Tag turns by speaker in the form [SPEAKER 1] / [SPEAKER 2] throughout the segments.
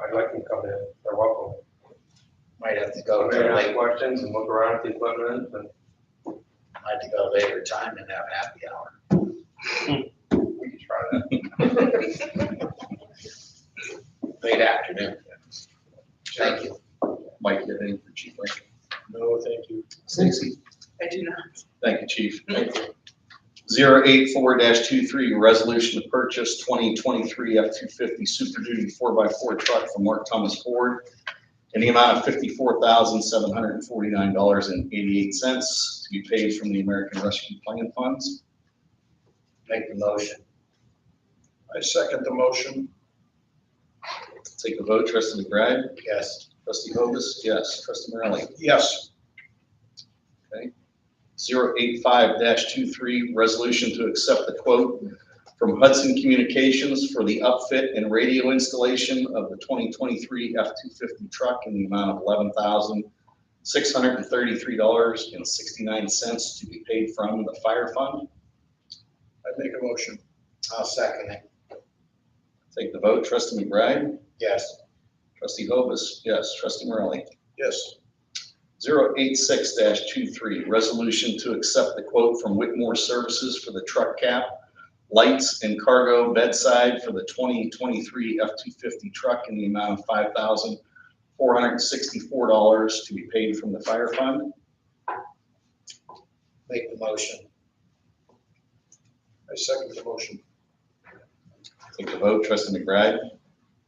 [SPEAKER 1] I'd like them to come in, they're welcome.
[SPEAKER 2] Might have to
[SPEAKER 1] So
[SPEAKER 2] go
[SPEAKER 1] they
[SPEAKER 2] to a
[SPEAKER 1] ask
[SPEAKER 2] later,
[SPEAKER 1] questions and look around at the equipment and
[SPEAKER 2] might have to go later time and have happy hour.
[SPEAKER 1] we can try that.
[SPEAKER 2] Late afternoon. Thank you.
[SPEAKER 3] Mike, you have anything for Chief Lincoln?
[SPEAKER 4] No, thank you.
[SPEAKER 3] Stacy?
[SPEAKER 5] I do not.
[SPEAKER 3] Thank you, Chief. Zero eight four dash two three, resolution to purchase twenty twenty-three F two fifty Super Duty four x four truck from Mark Thomas Ford in the amount of fifty-four thousand, seven hundred and forty-nine dollars and eighty-eight cents to be paid from the American Rescue Plan funds.
[SPEAKER 2] Make the motion.
[SPEAKER 4] I second the motion.
[SPEAKER 3] Take the vote, trustee McBride,
[SPEAKER 2] Yes.
[SPEAKER 3] trustee Hovis, yes, trustee Morelli.
[SPEAKER 4] Yes,
[SPEAKER 3] zero eight five dash two three, resolution to accept the quote from Hudson Communications for the upfit and radio installation of the twenty twenty-three F two fifty truck in the amount of eleven thousand six hundred and thirty-three dollars and sixty-nine cents to be paid from the fire fund.
[SPEAKER 4] I make a motion.
[SPEAKER 2] I'll second it.
[SPEAKER 3] Take the vote, trustee McBride,
[SPEAKER 2] Yes.
[SPEAKER 3] trustee Hovis, yes, trustee Morelli.
[SPEAKER 4] Yes,
[SPEAKER 3] 086-23, resolution to accept the quote from Whitmore Services for the truck cap, lights and cargo bedside for the 2023 F-250 truck in the amount of $5,464 to be paid from the fire fund.
[SPEAKER 2] Make the motion.
[SPEAKER 4] I second the motion.
[SPEAKER 3] Take the vote, trustee McBride.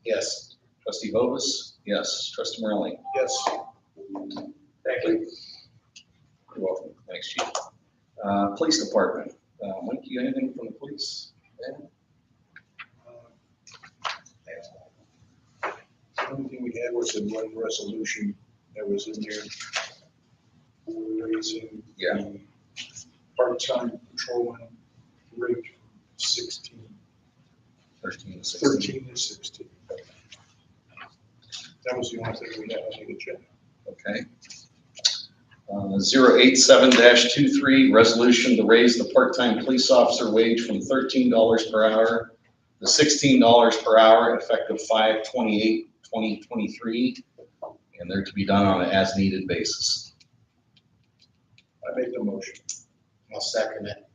[SPEAKER 2] Yes.
[SPEAKER 3] Trustee Hovis, yes. Trustee Morelli.
[SPEAKER 4] Yes,
[SPEAKER 1] Thank you.
[SPEAKER 3] You're welcome. Thanks, Chief. Uh, Police Department, Uh, Mike, you got anything from the police?
[SPEAKER 4] the only thing we had was the one resolution that was in there. Raising. the
[SPEAKER 3] Yeah.
[SPEAKER 4] Part-time patrolman rate from sixteen,
[SPEAKER 3] 13 to 16.
[SPEAKER 4] thirteen to sixteen. That was the only thing we had on the agenda.
[SPEAKER 3] Okay. Uh, Zero eight seven dash two three, resolution to raise the part-time police officer wage from thirteen dollars per hour to sixteen dollars per hour effective five twenty-eight, twenty twenty-three. And they're to be done on an as-needed basis.
[SPEAKER 4] I make the motion.
[SPEAKER 2] I'll second it.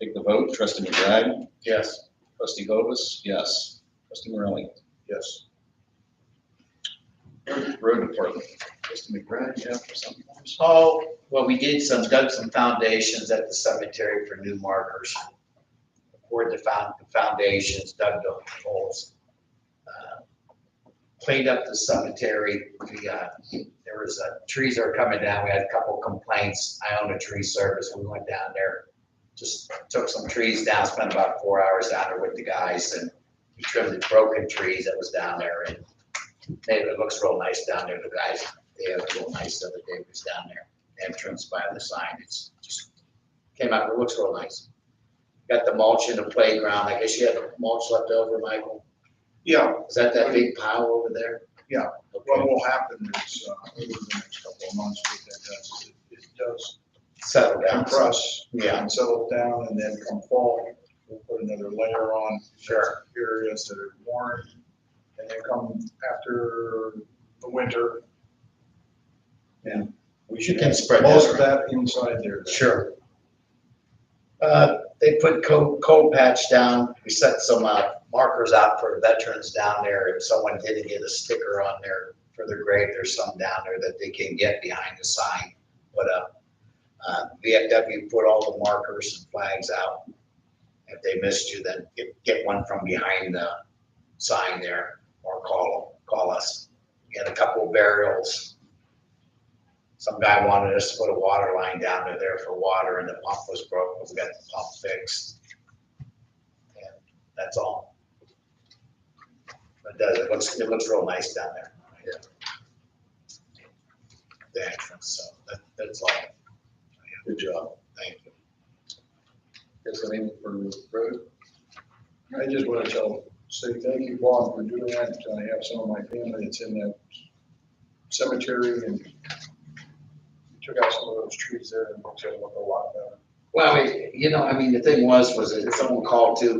[SPEAKER 3] Take the vote, trustee McBride,
[SPEAKER 2] Yes.
[SPEAKER 3] trustee Hovis, yes, trustee Morelli.
[SPEAKER 4] Yes.
[SPEAKER 3] Road department, trustee McBride, yeah, for something.
[SPEAKER 2] Oh, well, we did some, dug some foundations at the cemetery for new markers. Poured the found, the foundations, dug the holes. uh, Cleaned up the cemetery. We, uh, there was, uh, trees are coming down. We had a couple complaints. I own a tree service. We went down there. Just took some trees down, spent about four hours down there with the guys and we trimmed the broken trees that was down there and made it, it looks real nice down there. The guys they have a little nice the other day, was down there, entrance by the sign, it's just, came out, it looks real nice. Got the mulch in the playground, I guess you had mulch left over, Michael,
[SPEAKER 4] Yeah,
[SPEAKER 2] is that that big pile over there?
[SPEAKER 4] Yeah.
[SPEAKER 2] Okay,
[SPEAKER 4] what will happen is, uh, over the next couple of months, what that does, it- it does
[SPEAKER 2] settle down,
[SPEAKER 4] compress.
[SPEAKER 2] Yeah.
[SPEAKER 4] And settle down, and then come fall, we'll put another layer on.
[SPEAKER 2] Sure.
[SPEAKER 4] Areas that are worn, and then come after the winter. And we should.
[SPEAKER 2] You can
[SPEAKER 4] have
[SPEAKER 2] spread that
[SPEAKER 4] Most of that inside there.
[SPEAKER 2] Sure. Uh, They put coal, coal patch down, we set some uh, markers out for veterans down there, if someone didn't get a sticker on there for their grave, there's some down there that they can get behind the sign, put up. Uh, VFW put all the markers and flags out. If they missed you, then get, get one from behind the sign there, or call, call us. We had a couple burials, some guy wanted us to put a water line down to there for water and the pump was broken. We got the pump fixed. And that's all. It does, it looks, it looks real nice down there. The entrance, so that, that's all. Good job. Thank you.
[SPEAKER 3] Yes, I mean, for road.
[SPEAKER 4] I just want to tell, say thank you, Bob, for doing that. I have some of my family that's in that cemetery and took out some of those trees there and it looks like a lot better.
[SPEAKER 2] Well, you know, I mean, the thing was, was that someone called too,